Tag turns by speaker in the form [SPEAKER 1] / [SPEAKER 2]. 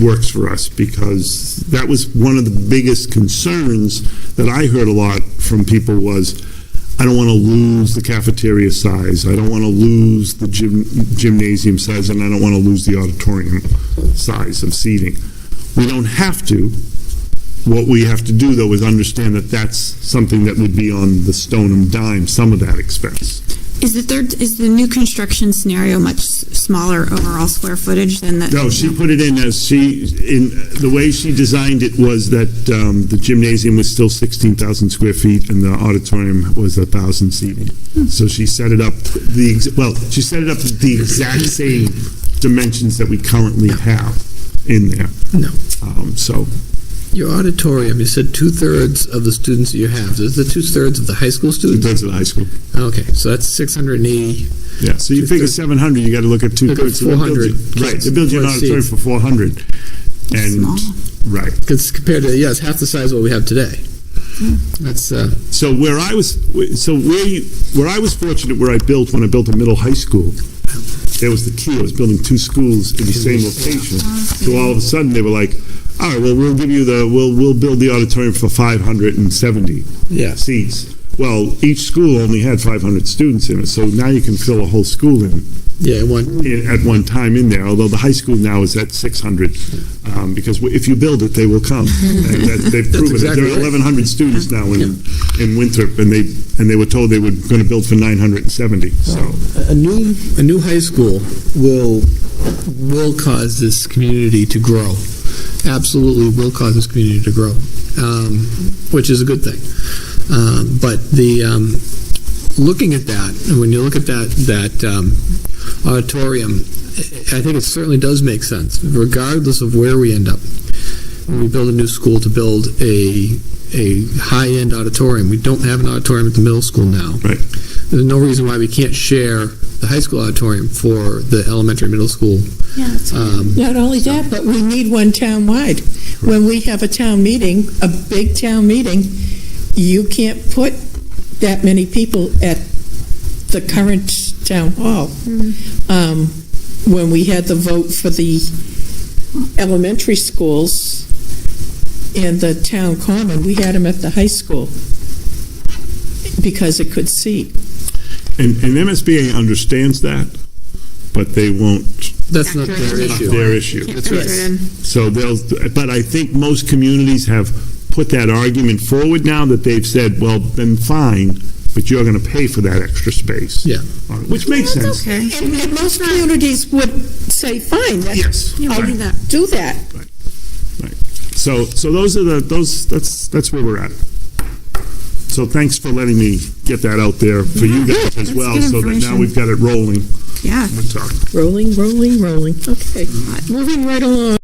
[SPEAKER 1] works for us, because that was one of the biggest concerns that I heard a lot from people was, I don't want to lose the cafeteria size, I don't want to lose the gym- gymnasium size, and I don't want to lose the auditorium size of seating. We don't have to. What we have to do, though, is understand that that's something that would be on the stone and dime, some of that expense.
[SPEAKER 2] Is the third, is the new construction scenario much s- smaller overall square footage than the?
[SPEAKER 1] No, she put it in as she, in, the way she designed it was that um, the gymnasium was still 16,000 square feet and the auditorium was 1,000 seating. So she set it up, the, ex- well, she set it up the exact same dimensions that we currently have in there.
[SPEAKER 3] No.
[SPEAKER 1] Um, So,
[SPEAKER 3] Your auditorium, you said two-thirds of the students that you have. Is it two-thirds of the high school
[SPEAKER 1] in
[SPEAKER 3] students?
[SPEAKER 1] terms of the high school.
[SPEAKER 3] Okay, so that's 680.
[SPEAKER 1] Yeah, so you figure
[SPEAKER 3] Two-thirds.
[SPEAKER 1] 700, you got to look at
[SPEAKER 3] Look at
[SPEAKER 1] two-thirds. So they built
[SPEAKER 3] 400
[SPEAKER 1] you- Right,
[SPEAKER 3] kids,
[SPEAKER 1] they built you an
[SPEAKER 3] four
[SPEAKER 1] auditorium
[SPEAKER 3] seats.
[SPEAKER 1] for 400. And,
[SPEAKER 2] Small.
[SPEAKER 1] right.
[SPEAKER 3] Because compared to, yeah, it's half the size of what we have today. That's, uh,
[SPEAKER 1] So where I was, so where you, where I was fortunate, where I built, when I built a middle high school, there was the key, I was building two schools in the same location. So all of a sudden, they were like, all right, well, we'll give you the, we'll, we'll build the auditorium for five hundred and seventy
[SPEAKER 3] Yeah.
[SPEAKER 1] seats. Well, each school only had five hundred students in it, so now you can fill a whole school in
[SPEAKER 3] yeah, one,
[SPEAKER 1] in- at one time in there, although the high school now is at 600, um, because w- if you build it, they will come. And that- They've proven it.
[SPEAKER 3] exactly
[SPEAKER 1] There are
[SPEAKER 3] right.
[SPEAKER 1] 1,100 students now in, in Winthrop, and they, and they were told they were going to build for 970, so.
[SPEAKER 3] a new, a new high school will, will cause this community to grow. Absolutely will cause this community to grow, um, which is a good thing. Um, But the, um, looking at that, and when you look at that, that um, auditorium, I I think it certainly does make sense, regardless of where we end up. When we build a new school to build a, a high-end auditorium, we don't have an auditorium at the middle school now.
[SPEAKER 1] Right.
[SPEAKER 3] There's no reason why we can't share the high school auditorium for the elementary, middle school.
[SPEAKER 2] Yeah, that's what-
[SPEAKER 3] um,
[SPEAKER 4] Not only that, but we need one town-wide. When we have a town meeting, a big town meeting, you can't put that many people at the current town hall.
[SPEAKER 2] Mm-hmm.
[SPEAKER 4] Um, When we had the vote for the elementary schools and the town common, we had them at the high school because it could seat.
[SPEAKER 1] And, and MSBA understands that, but they won't,
[SPEAKER 3] That's not their
[SPEAKER 2] Factor it in.
[SPEAKER 3] issue.
[SPEAKER 1] their issue.
[SPEAKER 2] Can't
[SPEAKER 3] That's
[SPEAKER 2] fit
[SPEAKER 3] right.
[SPEAKER 2] it in.
[SPEAKER 1] So they'll, but I think most communities have put that argument forward now that they've said, well, then fine, but you're going to pay for that extra space.
[SPEAKER 3] Yeah.
[SPEAKER 1] Uh, Which makes sense.
[SPEAKER 2] That's okay.
[SPEAKER 4] And and most communities would say, fine,
[SPEAKER 1] Yes.
[SPEAKER 2] Yeah, we'll
[SPEAKER 1] Right.
[SPEAKER 2] do that.
[SPEAKER 4] do that.
[SPEAKER 1] Right. So, so those are the, those, that's, that's where we're at. So thanks for letting me get that out there for you
[SPEAKER 2] Yeah,
[SPEAKER 1] guys as
[SPEAKER 2] that's
[SPEAKER 1] well,
[SPEAKER 2] good
[SPEAKER 1] so that now
[SPEAKER 2] information.
[SPEAKER 1] we've got it rolling.
[SPEAKER 2] Yeah.
[SPEAKER 1] We're talking.
[SPEAKER 4] Rolling, rolling, rolling. Okay, moving right along.